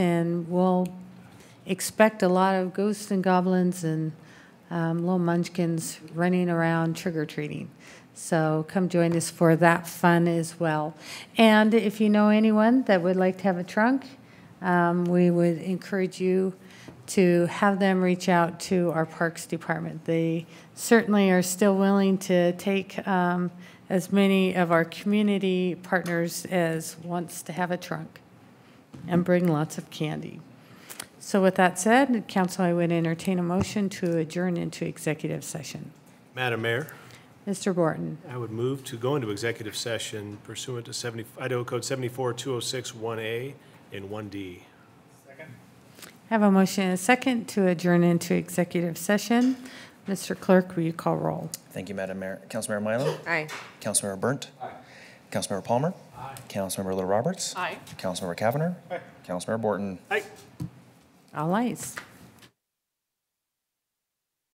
and we'll expect a lot of ghosts and goblins and um, little munchkins running around trick or treating. So come join us for that fun as well. And if you know anyone that would like to have a trunk, um, we would encourage you to have them reach out to our Parks Department. They certainly are still willing to take um, as many of our community partners as wants to have a trunk and bring lots of candy. So with that said, council, I would entertain a motion to adjourn into executive session. Madam Mayor, Mr. Borton, I would move to go into executive session pursuant to 70, Idaho Code 742061A and 1D. have a motion and a second to adjourn into executive session. Mr. Clerk, will you call roll? Thank you, Madam Mayor. Councilmember Milo? Aye. Councilmember Burnt? Aye. Councilmember Palmer? Aye. Councilmember Little Roberts? Aye. Councilmember Cavanagh? Aye. Councilmember Borton? Aye. All ayes.